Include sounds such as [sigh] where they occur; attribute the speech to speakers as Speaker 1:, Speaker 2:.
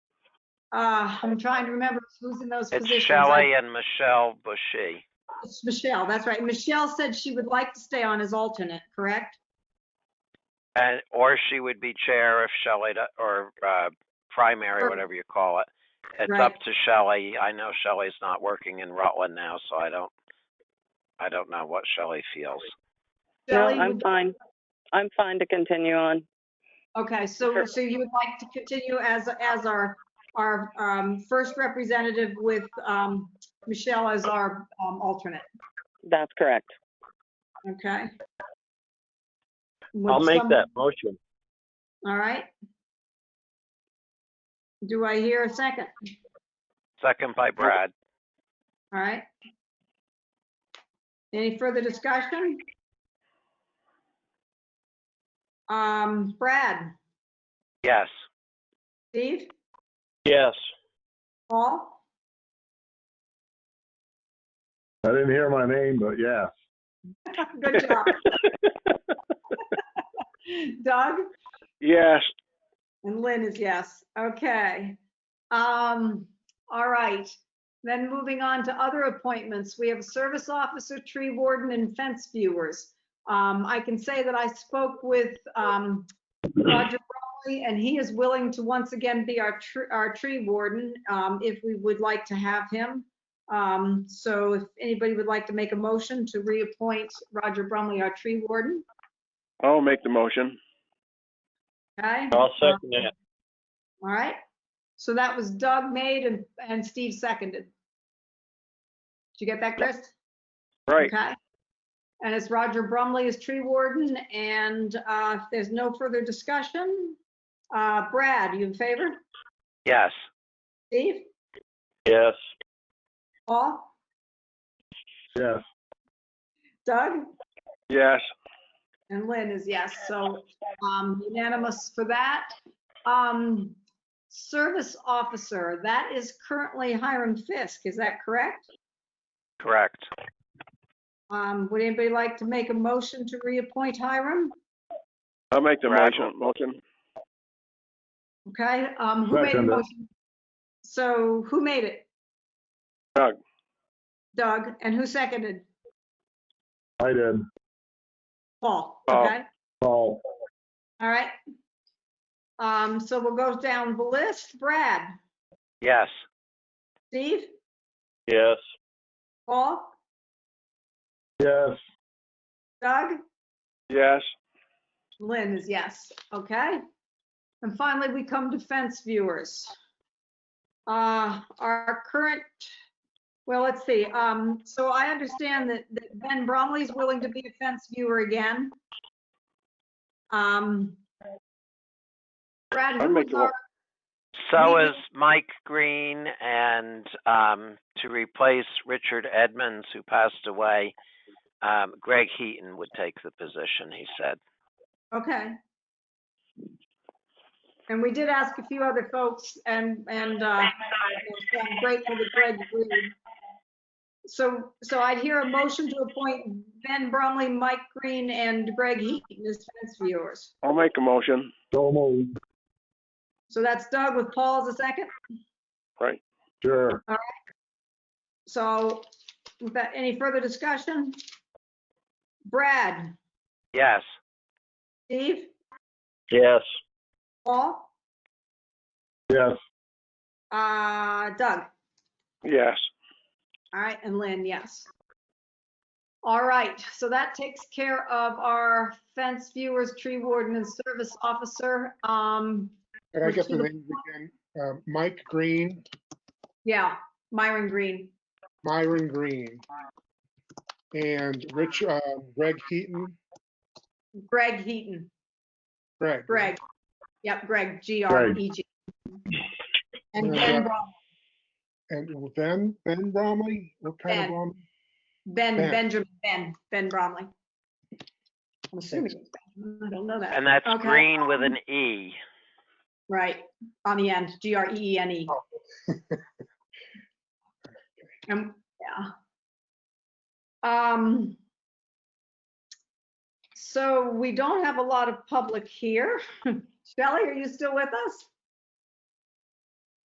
Speaker 1: Uh, I'm trying to remember who's in those
Speaker 2: It's
Speaker 1: positions.
Speaker 2: Shelley and Michelle Bushy.
Speaker 1: It's Michelle, that's right. Michelle said she would like to stay on as alternate, correct?
Speaker 2: And, or she would be chair if Shelley, do- or uh, primary,
Speaker 1: Or-
Speaker 2: whatever you call it. It's
Speaker 1: Right.
Speaker 2: up to Shelley. I know Shelley's not working in Rutland now, so I don't, I don't know what Shelley feels.
Speaker 3: No,
Speaker 1: Shelley,
Speaker 3: I'm
Speaker 1: would-
Speaker 3: fine. I'm fine to continue on.
Speaker 1: okay, so, so you would like to continue as, as our, our um, first representative with um, Michelle as our um, alternate,
Speaker 3: That's correct.
Speaker 1: okay?
Speaker 4: I'll
Speaker 1: Would
Speaker 4: make
Speaker 1: some-
Speaker 4: that motion.
Speaker 1: All right. Do I hear a second?
Speaker 2: Second by Brad.
Speaker 1: All right. Any further discussion? Um, Brad,
Speaker 2: Yes.
Speaker 1: Steve,
Speaker 4: Yes.
Speaker 1: Paul,
Speaker 5: I didn't hear my name, but yeah.
Speaker 1: [laughs] good job. Doug
Speaker 4: Yes.
Speaker 1: and Lynn is yes, okay. Um, all right, then moving on to other appointments, we have a service officer, tree warden, and fence viewers. Um, I can say that I spoke with, um, Roger Rowley, and he is willing to once again be our, tr- our tree warden, um, if we would like to have him. Um, so if anybody would like to make a motion to reappoint Roger Brumley, our tree warden,
Speaker 6: I'll make the motion.
Speaker 1: okay?
Speaker 4: I'll second that.
Speaker 1: All right, so that was Doug made and, and Steve seconded. Did you get that, Chris?
Speaker 6: Right.
Speaker 1: Okay. And it's Roger Brumley as tree warden, and uh, if there's no further discussion, uh, Brad, you in favor?
Speaker 2: Yes.
Speaker 1: Steve?
Speaker 4: Yes.
Speaker 1: Paul?
Speaker 5: Yes.
Speaker 1: Doug?
Speaker 6: Yes.
Speaker 1: And Lynn is yes, so um, unanimous for that. Um, Service officer, that is currently Hiram Fisk, is that correct?
Speaker 2: Correct.
Speaker 1: Um, would anybody like to make a motion to reappoint Hiram?
Speaker 6: I'll make the
Speaker 2: Brad
Speaker 6: motion, motion.
Speaker 1: Okay, um, who made the
Speaker 5: Second.
Speaker 1: motion? So who made it?
Speaker 6: Doug.
Speaker 1: Doug, and who seconded?
Speaker 5: I did.
Speaker 1: Paul,
Speaker 6: Paul.
Speaker 1: okay,
Speaker 5: Paul.
Speaker 1: all right. Um, so we'll go down the list. Brad,
Speaker 2: Yes.
Speaker 1: Steve,
Speaker 4: Yes.
Speaker 1: Paul,
Speaker 5: Yes.
Speaker 1: Doug?
Speaker 6: Yes.
Speaker 1: Lynn is yes, okay. And finally, we come to fence viewers. Uh, our current, well, let's see, um, so I understand that, that Ben Bromley's willing to be a fence viewer again. Um, Brad,
Speaker 6: I'd
Speaker 1: who was
Speaker 6: make the
Speaker 1: our,
Speaker 2: So
Speaker 1: Maybe-
Speaker 2: is Mike Green and um, to replace Richard Edmonds, who passed away, um, Greg Heaton would take the position, he said.
Speaker 1: okay. And we did ask a few other folks and, and, uh, I'm grateful that Greg agreed. So, so I'd hear a motion to appoint Ben Bromley, Mike Green, and Greg Heaton as fence viewers.
Speaker 6: I'll make a motion.
Speaker 5: So moved.
Speaker 1: So that's Doug with Paul as a second.
Speaker 5: Sure.
Speaker 1: So without any further discussion? Brad,
Speaker 2: Yes.
Speaker 1: Steve,
Speaker 4: Yes.
Speaker 1: Paul,
Speaker 5: Yes.
Speaker 1: uh, Doug?
Speaker 6: Yes.
Speaker 1: All right, and Lynn, yes. All right, so that takes care of our fence viewers, tree warden, and service officer. Um,
Speaker 7: Could I
Speaker 1: Would
Speaker 7: get
Speaker 1: you
Speaker 7: the names again? Uh, Mike Green,
Speaker 1: yeah, Myron Green.
Speaker 7: Myron Green, and Rich, uh, Greg Heaton,
Speaker 1: Greg Heaton,
Speaker 7: Greg.
Speaker 1: Greg. Yep, Greg, G-R-E-G. And Ben, Brom-
Speaker 7: And Ben, Ben Bromley? What kind of
Speaker 1: Ben.
Speaker 7: Bromley?
Speaker 1: Ben,
Speaker 7: Ben.
Speaker 1: Benjamin, Ben, Ben Bromley. I'm assuming, it's Ben. I don't know that.
Speaker 2: And that's
Speaker 1: Okay.
Speaker 2: Green with an E.
Speaker 1: Right, on the end, E G-R-E-E-N-E.
Speaker 7: Oh.
Speaker 1: [laughs] Um, yeah. Um, [laughs] so we don't have a lot of public here. Shelley, are you still with us?